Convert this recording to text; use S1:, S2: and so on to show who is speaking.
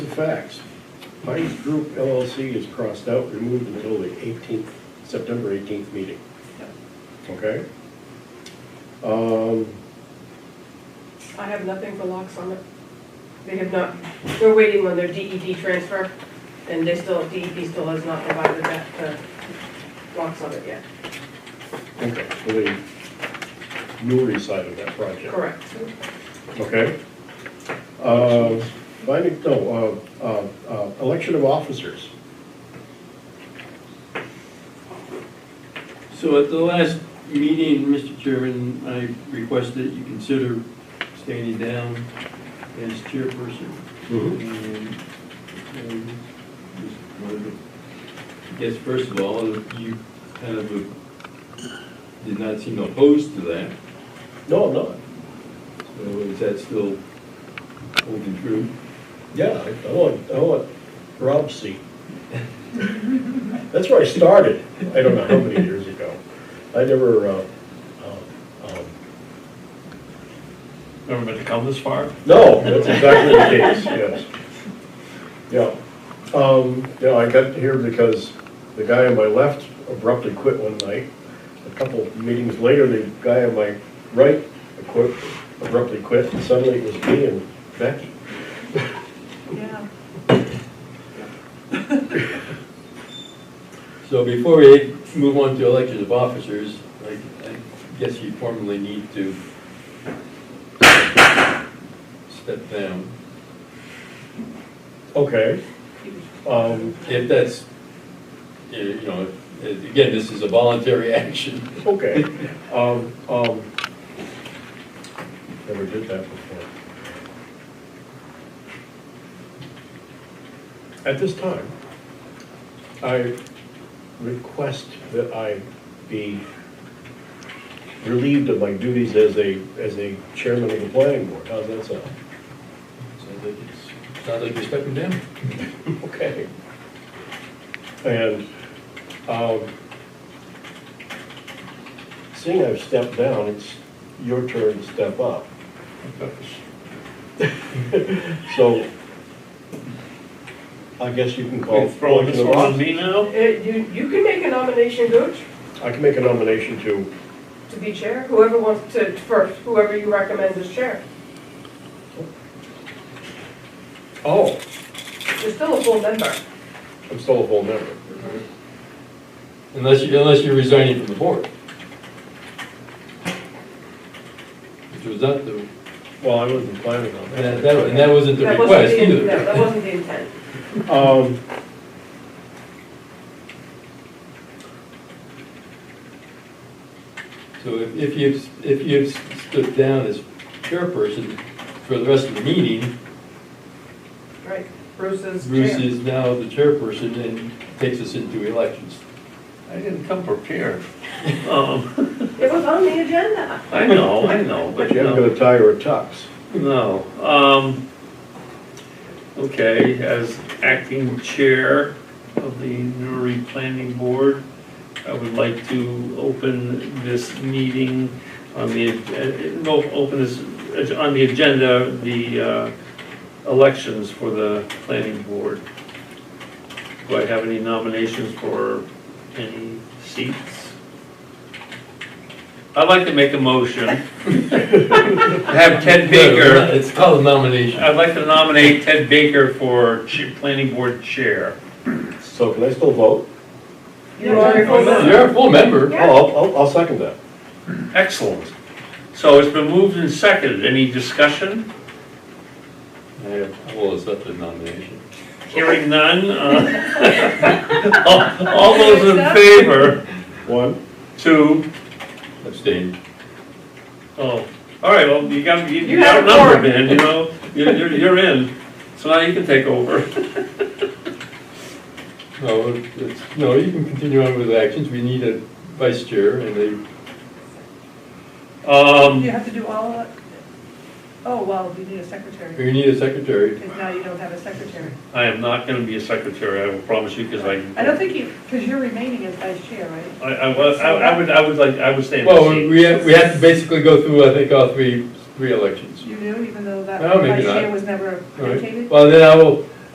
S1: facts. Pines Group LLC is crossed out, removed until the 18th, September 18th meeting. Okay? Um,
S2: I have nothing for Lock Summit. They have not, they're waiting on their DED transfer, and they still, DED still has not provided that uh, to Lock Summit yet.
S1: Okay, so the Newry side of that project.
S2: Correct.
S1: Okay. Uh, Finding, no, uh, uh, uh, election of officers.
S3: So at the last meeting, Mr. Chairman, I request that you consider standing down as chairperson. Mm-hmm.
S1: Mhm.
S3: And, um, just wanted to- um, I guess first of all, you kind of uh, did not seem opposed to that,
S1: No, I'm not.
S3: so is that still holding true?
S1: Yeah, I- I want, I want Rob's seat. That's where I started, I don't know how many years ago. I never, uh, um, um,
S4: Never meant to come this far?
S1: no, that's exactly the case, yes. Yeah, um, yeah, I got here because the guy on my left abruptly quit one night. A couple meetings later, the guy on my right acqui- abruptly quit, and suddenly it was me and Becky.
S2: Yeah.
S3: So before we move on to election of officers, I I guess you formally need to step down,
S1: Okay, um,
S3: if that's, eh, you know, if- again, this is a voluntary action.
S1: Okay, um, um, never did that before. At this time, I request that I be relieved of my duties as a, as a chairman of the planning board, how's that sound?
S3: Sounds like it's- Sounds like you're stepping down.
S1: Okay. And, um, seeing I've stepped down, it's your turn to step up. So, I guess you can call.
S4: You're Throwing this one on me now?
S2: Eh, You, you can make a nomination, Gooch,
S1: I can make a nomination to,
S2: to be chair, whoever wants to, first, whoever you recommend as chair.
S1: oh,
S2: You're still a full member.
S1: I'm still a full member.
S3: Unless you, unless you're resigning from the board. Which was not the,
S1: Well, I wasn't planning on
S3: that- that- and that
S1: that.
S3: wasn't the
S2: That wasn't
S3: request
S2: the,
S3: either.
S2: no, that wasn't the intent.
S1: Um,
S3: So if if you've, if you've stood down as chairperson for the rest of the meeting,
S2: Right, Bruce is
S3: Bruce
S2: chair.
S3: is now the chairperson and takes us into elections.
S4: I didn't come prepared. Um,
S2: It was on the agenda.
S4: I know, I know,
S1: but
S4: but
S1: you
S4: you
S1: haven't
S4: know,
S1: got a tie or a tux.
S4: no. Um, Okay, as acting chair of the Newry Planning Board, I would like to open this meeting on the, uh, no, open this, uh, on the agenda, the uh, elections for the planning board. Do I have any nominations for any seats? I'd like to make a motion. Have Ted Baker.
S3: It's called a nomination.
S4: I'd like to nominate Ted Baker for ch- Planning Board Chair.
S1: So can I still vote?
S2: You are a full member.
S3: You're a full member.
S1: Oh, I'll, I'll- I'll second that.
S4: Excellent. So it's been moved and seconded. Any discussion?
S3: I will accept the nomination.
S4: Hearing none? uh, all- All those in favor?
S1: One,
S4: Two.
S3: Abstain.
S4: Oh, all right, well, you got, you-
S2: You
S4: you
S2: had a
S4: got number, man, you know? You're, you're- you're in. So now you can take over.
S3: No, it's, no, you can continue on with the actions. We need a vice chair and a,
S4: Um,
S5: You have to do all of it? Oh, well, we need a secretary,
S3: we need a secretary.
S5: because now you don't have a secretary.
S4: I am not gonna be a secretary, I will promise you, because I,
S5: I don't think you, because you're remaining as vice chair, right?
S4: I, I was, I I would, I would like, I would stay in
S3: Well,
S4: the seat.
S3: we have, we have to basically go through, I think, all three, three elections.
S5: You do, even though that
S3: No,
S5: vice
S3: maybe
S5: chair
S3: not.
S5: was never
S3: All right.
S5: vacated?
S3: Well, then I will,